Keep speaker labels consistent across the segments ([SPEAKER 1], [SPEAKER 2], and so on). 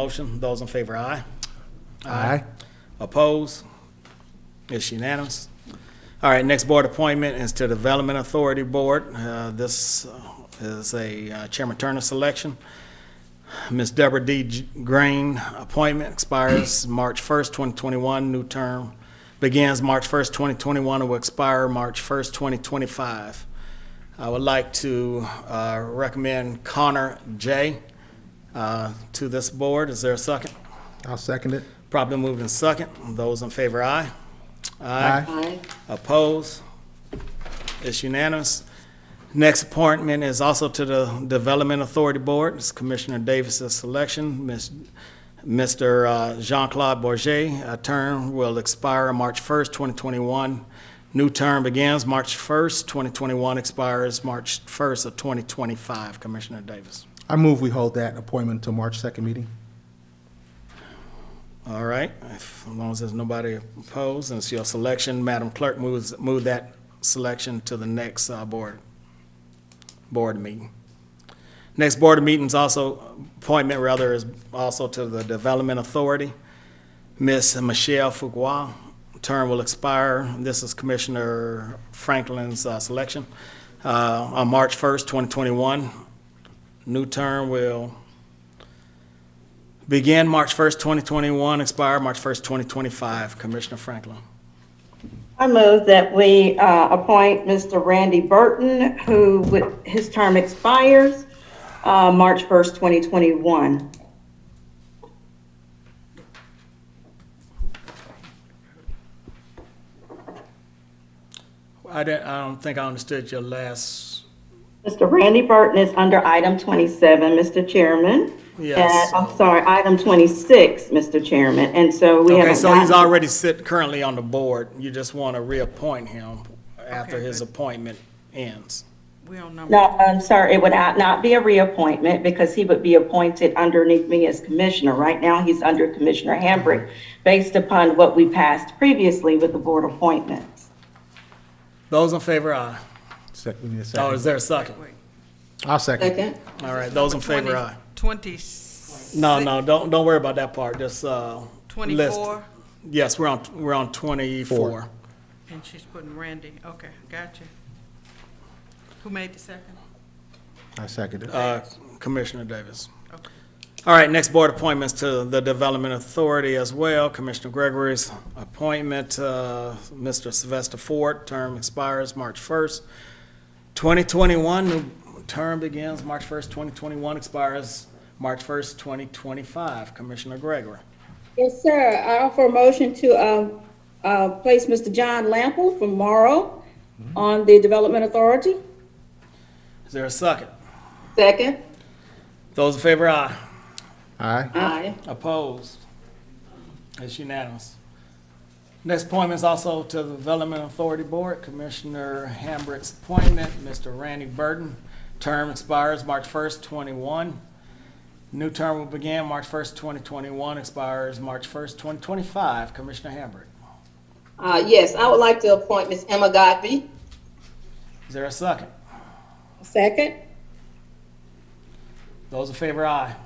[SPEAKER 1] Motion, those in favor, aye.
[SPEAKER 2] Aye.
[SPEAKER 1] Oppose? It's unanimous. All right, next board appointment is to Development Authority Board. Uh, This is a uh, Chairman Turner selection. Ms. Deborah D. G- Green, appointment expires March 1st, 2021, new term begins March 1st, 2021, and will expire March 1st, 2025. I would like to uh, recommend Connor J. uh, to this board. Is there a second?
[SPEAKER 2] I'll second it.
[SPEAKER 1] Probably moved in second. Those in favor, aye.
[SPEAKER 3] Aye.
[SPEAKER 1] Opposed? It's unanimous. Next appointment is also to the Development Authority Board. It's Commissioner Davis's selection. Miss- Mr. uh, Jean-Claude Bourget, a term will expire March 1st, 2021. New term begins March 1st, 2021, expires March 1st of 2025. Commissioner Davis.
[SPEAKER 2] I move we hold that appointment until March 2nd meeting.
[SPEAKER 1] All right, if- as long as there's nobody opposed, and it's your selection, Madam Clerk, moves, move that selection to the next, uh, board, board meeting. Next board meeting's also, appointment rather, is also to the Development Authority. Miss Michelle Fuqua, term will expire, this is Commissioner Franklin's, uh, selection, uh, on March first, twenty twenty-one. New term will Begin March 1st, 2021, expire March 1st, 2025. Commissioner Franklin.
[SPEAKER 3] I move that we uh, appoint Mr. Randy Burton, who, would- his term expires uh, March 1st, 2021.
[SPEAKER 1] I don't, I don't think I understood your last,
[SPEAKER 3] Mr. Randy Burton is under item 27, Mr. Chairman.
[SPEAKER 1] Yes.
[SPEAKER 3] And- I'm sorry, item 26, Mr. Chairman, and so we haven't
[SPEAKER 1] okay, so he's
[SPEAKER 3] gotten-
[SPEAKER 1] already sit, currently on the board. You just want to reappoint him after
[SPEAKER 4] Okay,
[SPEAKER 1] his
[SPEAKER 4] good.
[SPEAKER 1] appointment ends.
[SPEAKER 4] We on number,
[SPEAKER 3] No, I'm sorry, it would not not be a reappointment because he would be appointed underneath me as commissioner. Right now, he's under Commissioner Hambrick, based upon what we passed previously with the board appointments.
[SPEAKER 1] Those in favor, aye.
[SPEAKER 2] Sec- we need a
[SPEAKER 1] Oh, is
[SPEAKER 2] second.
[SPEAKER 1] there a second?
[SPEAKER 4] wait,
[SPEAKER 2] I'll second.
[SPEAKER 3] Second?
[SPEAKER 1] All right, those in favor,
[SPEAKER 4] 20
[SPEAKER 1] aye.
[SPEAKER 4] 20
[SPEAKER 1] No, no, don't, don't worry about that part, just, uh. list.
[SPEAKER 4] 24,
[SPEAKER 1] Yes, we're on, we're on 24.
[SPEAKER 2] Four.
[SPEAKER 4] and she's putting Randy, okay, gotcha. Who made the second?
[SPEAKER 2] I second it.
[SPEAKER 1] Uh, Commissioner Davis.
[SPEAKER 4] Okay.
[SPEAKER 1] All right, next board appointments to the Development Authority as well. Commissioner Gregory's appointment, uh, Mr. Sylvester Ford, term expires March 1st, 2021. New term begins March 1st, 2021, expires March 1st, 2025. Commissioner Gregory.
[SPEAKER 5] Yes, sir. I offer a motion to uh, uh, place Mr. John Lample from Morrow
[SPEAKER 1] Mm-hmm.
[SPEAKER 5] on the Development Authority.
[SPEAKER 1] Is there a second?
[SPEAKER 3] Second?
[SPEAKER 1] Those in favor, aye.
[SPEAKER 2] Aye.
[SPEAKER 3] Aye.
[SPEAKER 1] Opposed? It's unanimous. Next appointment is also to the Development Authority Board, Commissioner Hambrick's appointment, Mr. Randy Burton. Term expires March 1st, 21. New term will begin March 1st, 2021, expires March 1st, 2025. Commissioner Hambrick,
[SPEAKER 6] Uh, yes, I would like to appoint Ms. Emma Godby.
[SPEAKER 1] is there a second?
[SPEAKER 5] Second?
[SPEAKER 1] Those in favor, aye.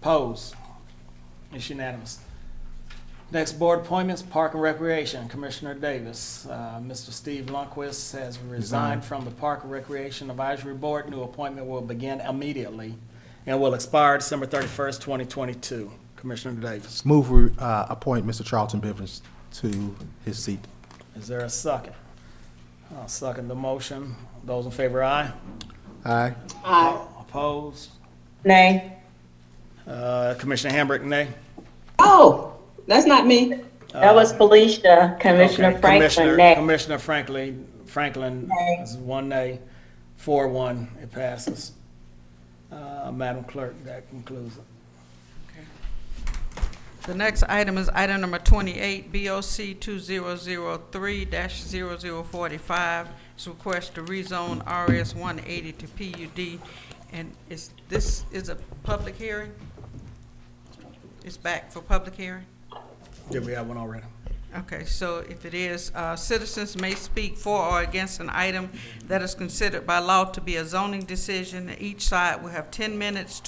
[SPEAKER 1] Opposed? It's unanimous. Next board appointments, Park and Recreation, Commissioner Davis. Uh, Mr. Steve Lundquist has resigned from the Park and Recreation Advisory Board. New appointment will begin immediately and will expire December thirty-first, twenty twenty-two. Commissioner Davis,
[SPEAKER 2] Move we uh, appoint Mr. Charlton Bivens to his seat.
[SPEAKER 1] is there a second? I'll second the motion. Those in favor, aye.
[SPEAKER 2] Aye.
[SPEAKER 6] Uh,
[SPEAKER 1] Opposed?
[SPEAKER 3] Nay.
[SPEAKER 1] Uh, Commissioner Hambrick, nay.
[SPEAKER 6] oh, that's not me.
[SPEAKER 3] That was Felicia, Commissioner
[SPEAKER 1] Uh, Okay,
[SPEAKER 3] Franklin,
[SPEAKER 1] Commissioner-
[SPEAKER 3] nay.
[SPEAKER 1] Commissioner Franklin, Franklin is one nay, four one, it passes. Uh, Madam Clerk, that concludes it.
[SPEAKER 4] The next item is item number 28, BOC 2003-0045. It's a request to rezone RS 180 to PUD, and is, this is a public hearing? It's back for public hearing?
[SPEAKER 1] Did we have one already?
[SPEAKER 4] Okay, so if it is, uh, citizens may speak for or against an item that is considered by law to be a zoning decision. Each side will have 10 minutes